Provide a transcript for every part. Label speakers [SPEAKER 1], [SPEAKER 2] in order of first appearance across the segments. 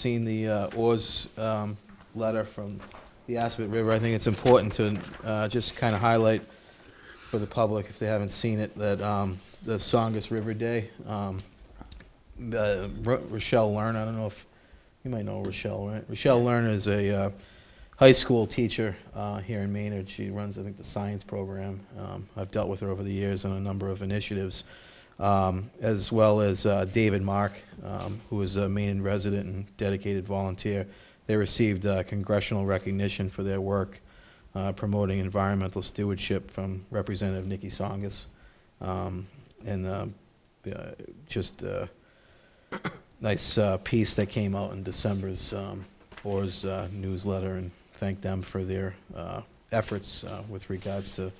[SPEAKER 1] seen the uh, Oars um, letter from the Aspet River, I think it's important to uh, just kind of highlight for the public, if they haven't seen it, that um, the Songus River Day, um, the uh, Ro- Rochelle Learn, I don't know if, you might know Rochelle, right? Rochelle Learn is a uh, high school teacher uh, here in Maynard. She runs, I think, the science program. Um, I've dealt with her over the years on a number of initiatives, um, as well as uh, David Mark, um, who is a Maynard resident and dedicated volunteer. They received uh, congressional recognition for their work uh, promoting environmental stewardship from Representative Nikki Songus. Um, And uh, uh, just uh, nice uh, piece that came out in December's um, Orr's uh, newsletter, and thank them for their uh, efforts uh, with regards to,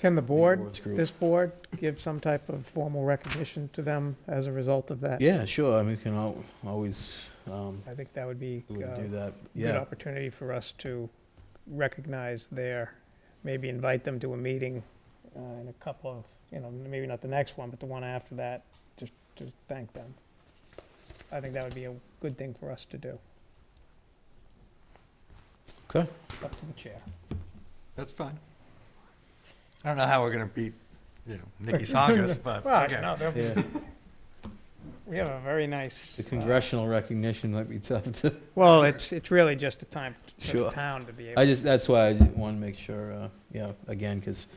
[SPEAKER 2] Can the board,
[SPEAKER 1] awards group.
[SPEAKER 2] this board, give some type of formal recognition to them as a result of that?
[SPEAKER 1] yeah, sure, I mean, we can al- always, um,
[SPEAKER 2] I think that would be
[SPEAKER 1] we would
[SPEAKER 2] uh,
[SPEAKER 1] do that,
[SPEAKER 2] a good
[SPEAKER 1] yeah.
[SPEAKER 2] opportunity for us to recognize their, maybe invite them to a meeting uh, in a couple of, you know, maybe not the next one, but the one after that, just to thank them. I think that would be a good thing for us to do.
[SPEAKER 1] Okay.
[SPEAKER 2] Up to the chair.
[SPEAKER 3] That's fine. I don't know how we're gonna beat, you know, Nikki Songas, but
[SPEAKER 2] Well,
[SPEAKER 3] okay.
[SPEAKER 2] no, they'll-
[SPEAKER 1] Yeah,
[SPEAKER 2] we have a very nice.
[SPEAKER 1] the
[SPEAKER 2] uh,
[SPEAKER 1] congressional recognition might be tough to,
[SPEAKER 2] Well, it's, it's really just a time for the
[SPEAKER 1] Sure.
[SPEAKER 2] town to be able.
[SPEAKER 1] I just, that's why I want to make sure, uh, yeah, again, because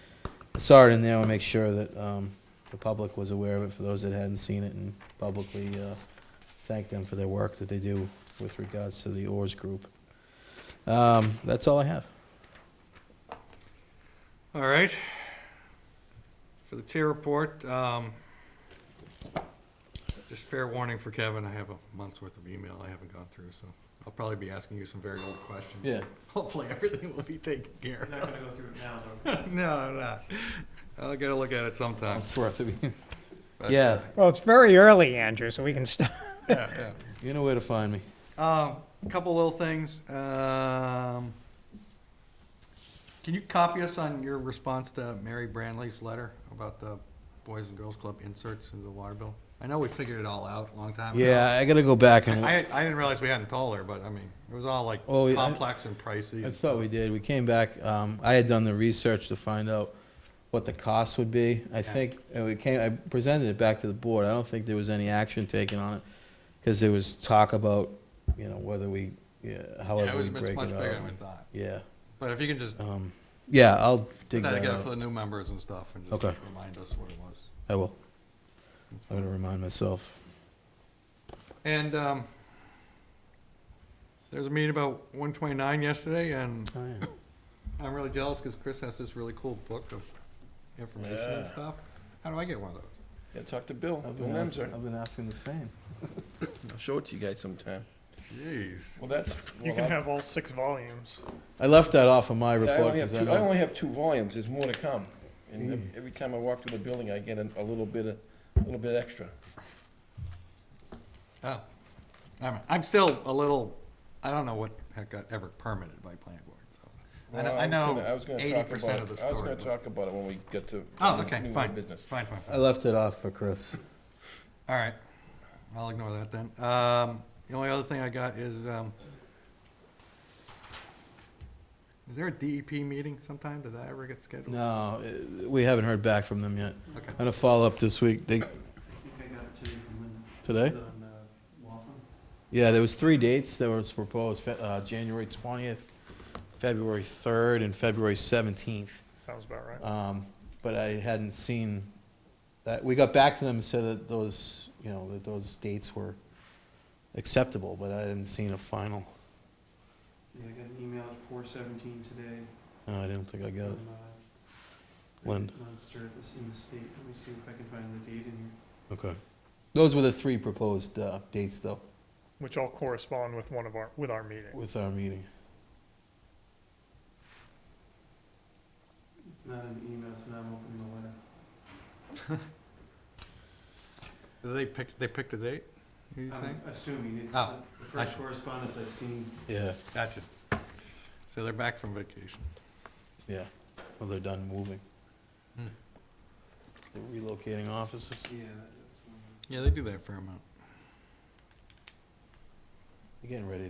[SPEAKER 1] I saw it in there, I want to make sure that um, the public was aware of it, for those that hadn't seen it, and publicly uh, thank them for their work that they do with regards to the Oars Group. Um, That's all I have.
[SPEAKER 3] All right. For the chair report, um, just fair warning for Kevin, I have a month's worth of email I haven't gone through, so I'll probably be asking you some very old questions.
[SPEAKER 1] Yeah.
[SPEAKER 3] Hopefully, everything will be taken care
[SPEAKER 4] We're not gonna go through it now, though.
[SPEAKER 3] of. No, I'm not. I'll get a look at it sometime.
[SPEAKER 1] It's worth it.
[SPEAKER 3] but-
[SPEAKER 1] Yeah,
[SPEAKER 2] Well, it's very early, Andrew, so we can start.
[SPEAKER 3] Yeah, yeah.
[SPEAKER 1] you know where to find me.
[SPEAKER 3] Um, couple little things. Um, can you copy us on your response to Mary Branley's letter about the Boys and Girls Club inserts into the water bill? I know we figured it all out a long time ago.
[SPEAKER 1] Yeah, I gotta go back and,
[SPEAKER 3] I, I didn't realize we hadn't told her, but I mean, it was all like
[SPEAKER 1] Oh, yeah.
[SPEAKER 3] complex and pricey.
[SPEAKER 1] I thought we did, we came back, um, I had done the research to find out what the cost would be. I
[SPEAKER 3] Yeah.
[SPEAKER 1] think, and we came, I presented it back to the board, I don't think there was any action taken on it, because there was talk about, you know, whether we, yeah,
[SPEAKER 3] Yeah, it
[SPEAKER 1] however
[SPEAKER 3] was
[SPEAKER 1] we
[SPEAKER 3] it's
[SPEAKER 1] break
[SPEAKER 3] much
[SPEAKER 1] it
[SPEAKER 3] bigger than we
[SPEAKER 1] up.
[SPEAKER 3] thought.
[SPEAKER 1] Yeah,
[SPEAKER 3] But if you can just put
[SPEAKER 1] um, yeah, I'll dig
[SPEAKER 3] that
[SPEAKER 1] that
[SPEAKER 3] together for the
[SPEAKER 1] out.
[SPEAKER 3] new members and stuff and
[SPEAKER 1] Okay.
[SPEAKER 3] just remind us what it was.
[SPEAKER 1] I will. I'm gonna remind myself.
[SPEAKER 3] And, um, there was a meeting about one twenty-nine yesterday and
[SPEAKER 1] Oh, yeah.
[SPEAKER 3] I'm really jealous because Chris has this really cool book of information
[SPEAKER 4] Yeah.
[SPEAKER 3] and stuff. How do I get one of those?
[SPEAKER 4] Yeah, talk to Bill,
[SPEAKER 1] I've
[SPEAKER 4] Bill
[SPEAKER 1] been ask-
[SPEAKER 4] Nemser.
[SPEAKER 1] I've been asking the same.
[SPEAKER 4] I'll show it to you guys sometime.
[SPEAKER 3] Jeez.
[SPEAKER 4] Well, that's.
[SPEAKER 5] You
[SPEAKER 4] well,
[SPEAKER 5] can
[SPEAKER 4] I-
[SPEAKER 5] have all six volumes.
[SPEAKER 1] I left that off of my
[SPEAKER 4] I
[SPEAKER 1] report,
[SPEAKER 4] only have
[SPEAKER 1] because I
[SPEAKER 4] two, I
[SPEAKER 1] know,
[SPEAKER 4] only have two volumes, there's more to come.
[SPEAKER 5] Mm.
[SPEAKER 4] And ev- every time I walk through the building, I get a, a little bit, of- a little bit extra.
[SPEAKER 3] Oh, I'm, I'm still a little, I don't know what the heck got ever permitted by planning board. so. I know,
[SPEAKER 4] Well,
[SPEAKER 3] I
[SPEAKER 4] was gonna-
[SPEAKER 3] know
[SPEAKER 4] I was gonna
[SPEAKER 3] eighty
[SPEAKER 4] talk
[SPEAKER 3] percent of
[SPEAKER 4] about
[SPEAKER 3] the
[SPEAKER 4] it. I was
[SPEAKER 3] story.
[SPEAKER 4] gonna
[SPEAKER 3] but-
[SPEAKER 4] talk about it when we get to.
[SPEAKER 3] Oh,
[SPEAKER 4] new-
[SPEAKER 3] okay,
[SPEAKER 4] new
[SPEAKER 3] fine,
[SPEAKER 4] business.
[SPEAKER 3] fine, fine,
[SPEAKER 1] I
[SPEAKER 3] fine.
[SPEAKER 1] left it off for Chris.
[SPEAKER 3] All right, I'll ignore that then. Um, the only other thing I got is, um, is there a DEP meeting sometime? Did that ever get scheduled?
[SPEAKER 1] No, eh, we haven't heard back from them yet.
[SPEAKER 3] Okay.
[SPEAKER 1] I'm gonna follow up this week, they, today? Yeah, there was three dates that was proposed, Fe- uh, January twentieth, February third, and February seventeenth.
[SPEAKER 5] Sounds about right.
[SPEAKER 1] Um, but I hadn't seen, that, we got back to them and said that those, you know, that those dates were acceptable, but I hadn't seen a final.
[SPEAKER 6] Yeah, I got an email at four seventeen today
[SPEAKER 1] No, I didn't think I got
[SPEAKER 6] from
[SPEAKER 1] it.
[SPEAKER 6] uh,
[SPEAKER 1] Lynn,
[SPEAKER 6] Munster, this in the state. Let me see if I can find the date in here.
[SPEAKER 1] okay. Those were the three proposed, uh, dates though,
[SPEAKER 5] Which all correspond with one of our, with our meeting.
[SPEAKER 1] with our meeting.
[SPEAKER 6] It's not an email, so now I'm opening the letter.
[SPEAKER 3] Did They picked, they picked a date, you
[SPEAKER 6] I'm
[SPEAKER 3] saying?
[SPEAKER 6] Assuming it's the
[SPEAKER 3] Oh,
[SPEAKER 6] the
[SPEAKER 3] I
[SPEAKER 6] first
[SPEAKER 3] see.
[SPEAKER 6] correspondence I've seen.
[SPEAKER 1] Yeah,
[SPEAKER 3] Gotcha. So they're back from vacation.
[SPEAKER 1] yeah. Well, they're done moving.
[SPEAKER 3] Hmm.
[SPEAKER 1] They're relocating offices.
[SPEAKER 6] Yeah. that- that's one.
[SPEAKER 3] Yeah, they do that for a fair amount.
[SPEAKER 1] You're getting ready to